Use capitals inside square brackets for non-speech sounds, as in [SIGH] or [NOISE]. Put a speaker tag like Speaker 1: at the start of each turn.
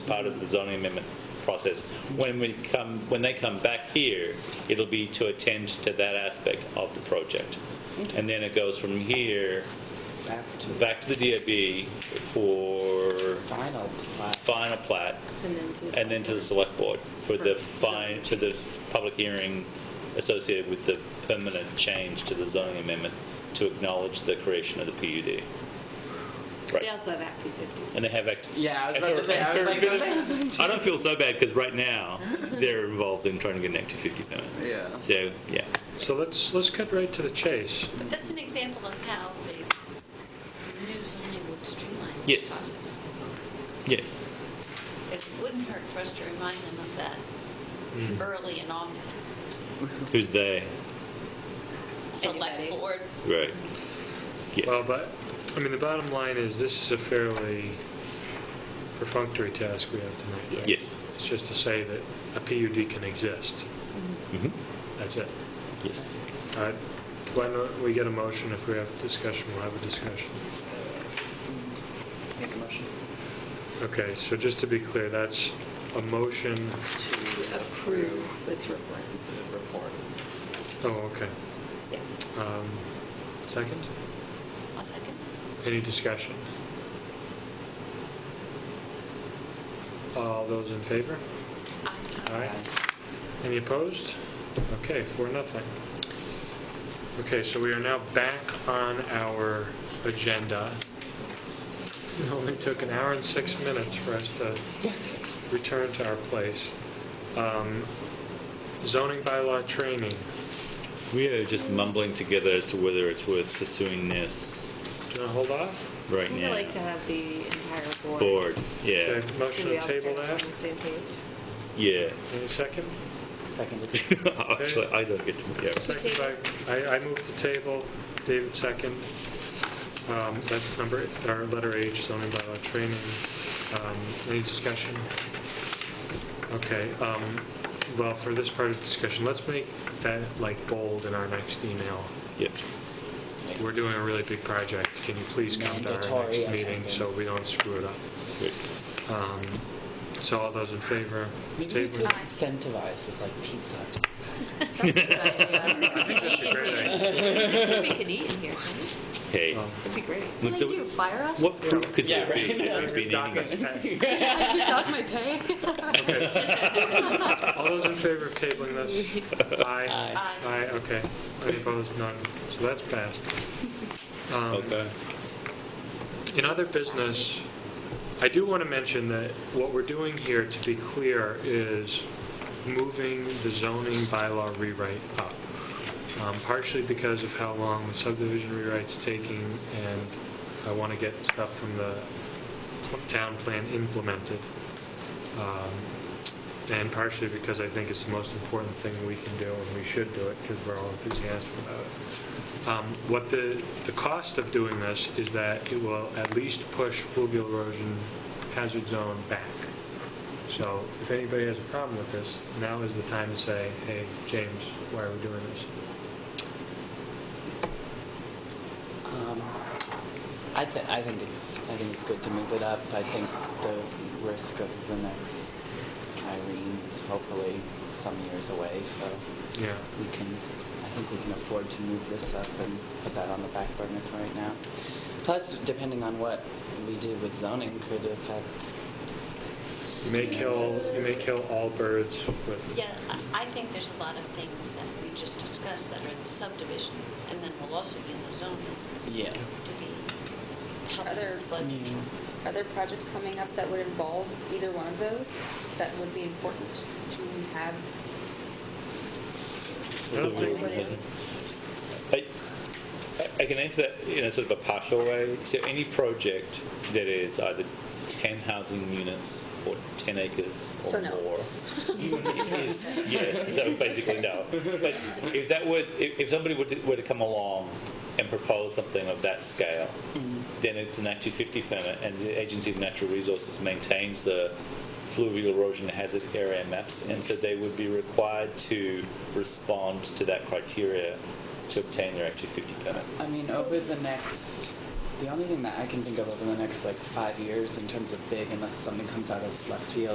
Speaker 1: part of the zoning amendment process. When we come, when they come back here, it'll be to attend to that aspect of the project. And then it goes from here
Speaker 2: back to the
Speaker 1: back to the DAB for
Speaker 2: final plat.
Speaker 1: final plat
Speaker 3: And then to the.
Speaker 1: and then to the select board for the fine, for the public hearing associated with the permanent change to the zoning amendment to acknowledge the creation of the PUD.
Speaker 3: They
Speaker 1: Right.
Speaker 3: also have Act 250.
Speaker 1: And they have act.
Speaker 2: Yeah, I was about to say, I was like,
Speaker 1: I don't feel so bad because right now they're involved in trying to get an Act 250 permit.
Speaker 2: yeah.
Speaker 1: So, yeah.
Speaker 4: So let's, let's cut right to the chase.
Speaker 5: But that's an example of how the new zoning would streamline
Speaker 1: Yes.
Speaker 5: this process.
Speaker 1: Yes.
Speaker 5: It wouldn't hurt for us to remind them of that early and often.
Speaker 1: Who's they?
Speaker 5: Select
Speaker 3: Anybody.
Speaker 5: board.
Speaker 1: Right.
Speaker 4: Well,
Speaker 1: Yes.
Speaker 4: but, I mean, the bottom line is this is a fairly perfunctory task we have tonight. right?
Speaker 1: Yes.
Speaker 4: It's just to say that a PUD can exist.
Speaker 1: Mhm.
Speaker 4: That's it.
Speaker 1: Yes.
Speaker 4: All right. Why don't we get a motion? If we have discussion, we'll have a discussion.
Speaker 2: Make a motion
Speaker 4: Okay, so just to be clear, that's a motion,
Speaker 2: to approve
Speaker 3: Approve this report.
Speaker 2: the report.
Speaker 4: oh, okay.
Speaker 3: Yeah.
Speaker 4: Um, Second?
Speaker 5: I'll second.
Speaker 4: Any discussion? All those in favor?
Speaker 5: Aye.
Speaker 4: Aye. Any opposed? Okay, four, nothing. Okay, so we are now back on our agenda. It only took an hour and six minutes for us to return to our place. Um, Zoning bylaw training.
Speaker 1: We are just mumbling together as to whether it's worth pursuing this
Speaker 4: Do you want to hold off?
Speaker 1: right
Speaker 3: We would
Speaker 1: now.
Speaker 3: like to have the entire board.
Speaker 1: Board, yeah,
Speaker 4: Okay, Motion
Speaker 3: Somebody
Speaker 4: to
Speaker 3: else
Speaker 4: table
Speaker 3: start
Speaker 4: that.
Speaker 3: On the same page.
Speaker 1: yeah. [LAUGHS]
Speaker 4: Any second?
Speaker 2: Seconded.
Speaker 1: Actually, I don't get to care.
Speaker 4: Second by, I, I move to table, David second. Um, That's number, our letter H, zoning bylaw training. Um, Any discussion? Okay, um, well, for this part of discussion, let's make that like bold in our next email.
Speaker 1: Yep.
Speaker 4: We're doing a really big project, can you please come to our
Speaker 2: Mandatory
Speaker 4: next meeting so we don't screw it up?
Speaker 1: Great.
Speaker 4: Um, So all those in favor?
Speaker 2: Maybe we
Speaker 4: table?
Speaker 2: could incentivize with like pizza or something.
Speaker 4: I think that's a great
Speaker 2: [LAUGHS]
Speaker 3: [LAUGHS]
Speaker 4: idea.
Speaker 3: We can eat in here, can't
Speaker 1: Hey.
Speaker 4: Um,
Speaker 3: we? It'd be great.
Speaker 1: look,
Speaker 3: What
Speaker 1: the-
Speaker 3: do you, fire us?
Speaker 1: What proof could there be? that we've been
Speaker 4: Dock
Speaker 1: eating
Speaker 4: us
Speaker 1: it?
Speaker 4: back.
Speaker 3: Dog my pay?
Speaker 4: All those in favor of tabling this? Aye.
Speaker 5: Aye.
Speaker 4: Aye, okay. Any opposed? None. So that's passed. Um,
Speaker 1: Okay.
Speaker 4: In other business, I do want to mention that what we're doing here, to be clear, is moving the zoning bylaw rewrite up, Um, partially because of how long the subdivision rewrite's taking, and I want to get stuff from the pl- town plan implemented, Um, and partially because I think it's the most important thing we can do, and we should do it, because we're all enthusiastic about it. Um, What the, the cost of doing this is that it will at least push fluvial erosion hazard zone back. So if anybody has a problem with this, now is the time to say, hey, James, why are we doing this?
Speaker 2: [LAUGHS] Um, I think I think it's I think it's good to move it up. I think the risk of the next Irene is hopefully some years away, so
Speaker 4: Yeah,
Speaker 2: we can I think we can afford to move this up and put that on the back burner for right now. Plus, depending on what we do with zoning, could affect.
Speaker 4: you may kill, you may kill all birds with
Speaker 5: Yeah, I- I think there's a lot of things that we just discussed that are in the subdivision, and then will also be in the zoning
Speaker 2: Yeah.
Speaker 5: to be helping
Speaker 6: Other-
Speaker 5: with flood
Speaker 2: Yeah.
Speaker 5: control.
Speaker 6: [LAUGHS] Are there projects coming up that would involve either one of those that would be important to have?
Speaker 1: I don't think- I, I can answer that in a sort of a partial way. So any project that is either 10 housing units or 10 acres or
Speaker 6: So no. [LAUGHS]
Speaker 1: more. is- yes, so basically no. But if that would, if, if somebody were to, were to come along and propose something of that scale, then it's an Act 250 permit and the Agency of Natural Resources maintains the fluvial erosion hazard area maps and so they would be required to respond to that criteria to obtain their Act 250 permit.
Speaker 2: I mean, over the next The only thing that I can think of over the next like five years in terms of big, unless something comes out of left field,